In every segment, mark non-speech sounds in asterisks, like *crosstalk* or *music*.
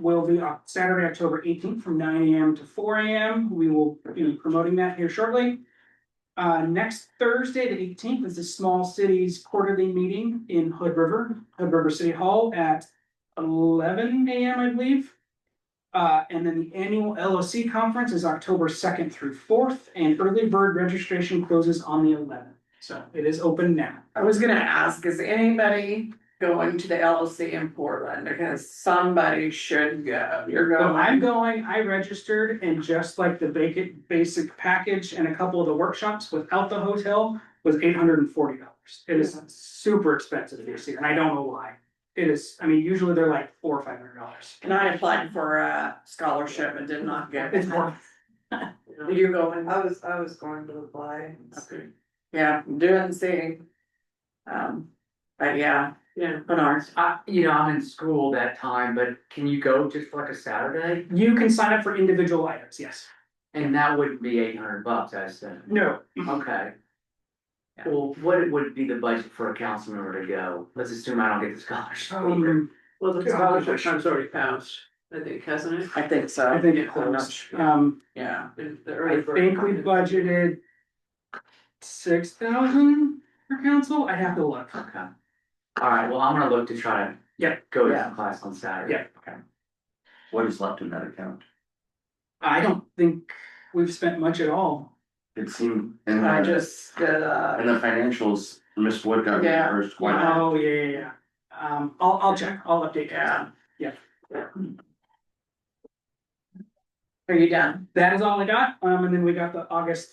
will be on Saturday, October eighteenth, from nine AM to four AM. We will be promoting that here shortly. Uh, next Thursday, the eighteenth, is the Small Cities Quarterly Meeting in Hood River, Hood River City Hall at eleven AM, I believe. Uh, and then the annual LOC conference is October second through fourth, and early bird registration closes on the eleventh. So it is open now. I was gonna ask, is anybody going to the LLC in Portland? Because somebody should go, you're So I'm going. going, I registered and just like the basic, basic package and a couple of the workshops without the hotel was eight hundred and forty dollars. It is super expensive this year and I don't know why. It is, I mean, usually they're like four or five hundred dollars. And I applied for a scholarship and did not get It's it. more, *laughs* Did you go in? I was, I was going to apply. Okay. Yeah, do and see. Um, but yeah. Yeah. But ours, I, you know, I'm in school that time, but can you go just like a Saturday? you can sign up for individual items, yes. And that wouldn't be eight hundred bucks, I said, No, okay. Mm-hmm. Yeah. Well, what would be the budget for a council member to go? Let's assume I don't get the scholarship. Oh, um, Well, the Yeah. scholarship time's already passed, I think, hasn't it? I think so. I think it I'm not holds, sure. um, Yeah, And the I early bird think we time. budgeted. Six thousand for council, I have to look. Okay. All right, well, I'm gonna look to try to. Yeah. Go to Yeah. class on Saturday. Yeah. Okay. What is left in that account? I don't think we've spent much at all. It seemed, in I the, just did uh, in a, the financials, Miss Wood got Yeah. reimbursed quite a Oh, yeah, yeah, yeah. Um, I'll, I'll check, I'll update. you. yeah. Yeah. Are you done? That is all I got, um, and then we got the August,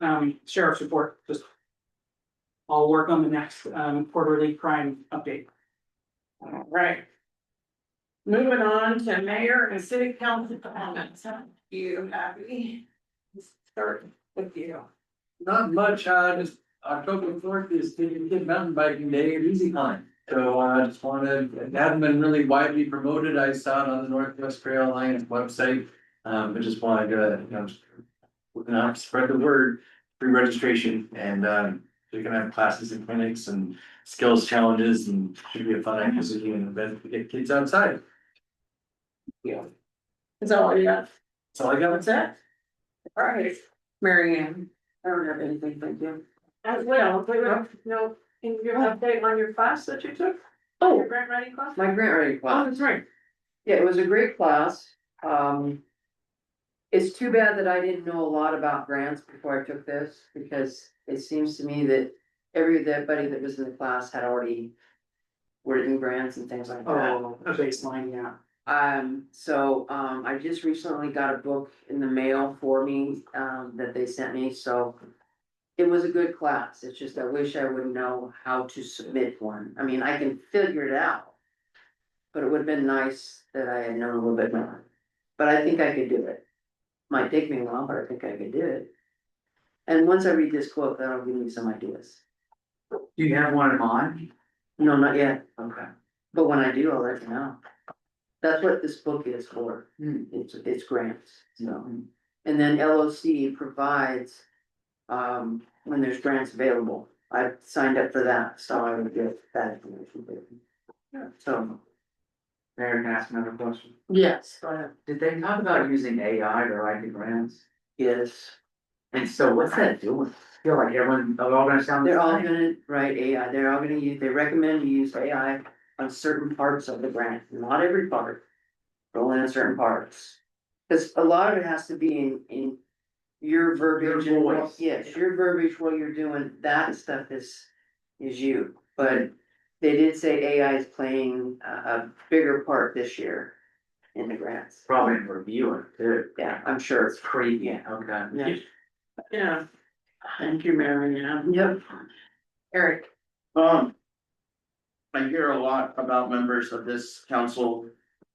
um, sheriff's report, just. I'll work on the next, um, quarterly crime update. All right. Moving on to mayor and city council comments. You happy? Start with you. Not much, uh, just October fourth is Kid Kid Mountain Biking Day at Easy Climb. So uh, I just wanted, it hadn't been really widely promoted, I saw it on the Northwest Trail Alliance website. Um, but just wanted to, you know, just- we're gonna have to spread the word, free registration and um, they're gonna have classes and clinics and skills challenges and should be a fun activity and event to get kids outside. Is that all you got? That's all I got. That's it? All right, Mary Ann, I don't have anything, thank you. As well, but no, no, can you give an update on your class that you took, Oh, your grant writing class? my grant writing Oh, class. that's right. Yeah, it was a great class. Um. It's too bad that I didn't know a lot about grants before I took this, because it seems to me that everybody that was in the class had already. Were in grants and things like that. Oh, a baseline, yeah. Um, so, um, I just recently got a book in the mail for me, um, that they sent me, so. It was a good class. It's just I wish I would know how to submit one. I mean, I can figure it out. But it would have been nice that I had known a little bit more. But I think I could do it. Might take me a while, but I think I could do it. And once I read this quote, that'll give me some ideas. Do you have one in mind? No, not yet. Okay. But when I do, I'll let you know. That's what this book is for. Hmm. It's, it's grants, so. And then LOC provides, um, when there's grants available. I signed up for that, so I would get that information. but- So, Mayor, can I ask another question? yes, go ahead. Did they talk about using AI to write the grants? Yes, And so what's that doing? I Feel like everyone, they're all gonna sound. the they're all same? gonna write AI, they're all gonna use, they recommend you use AI on certain parts of the grant, not every part. But only on certain parts. Cause a lot of it has to be in, in your verbiage and what- voice. yes, your verbiage, what you're doing, that stuff is, is you, but. They did say AI is playing a, a bigger part this year in the grants, Probably in reviewing too. yeah, I'm sure, It's creepy, okay. yeah, Yeah. Thank you, Mary Ann. yep. Eric, Um. I hear a lot about members of this council.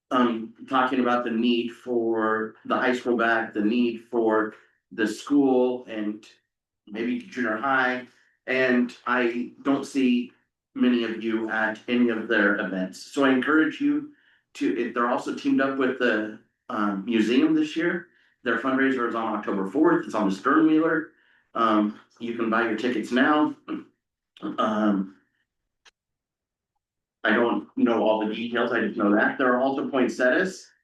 Um, talking about the need for the high school back, the need for the school and. Maybe junior high, and I don't see many of you at any of their events, so I encourage you. To, if they're also teamed up with the um museum this year. Their fundraiser is on October fourth, it's on the Stern Wheeler. Um, you can buy your tickets now. Um. I don't know all the details, I just know that. There are also poinsettias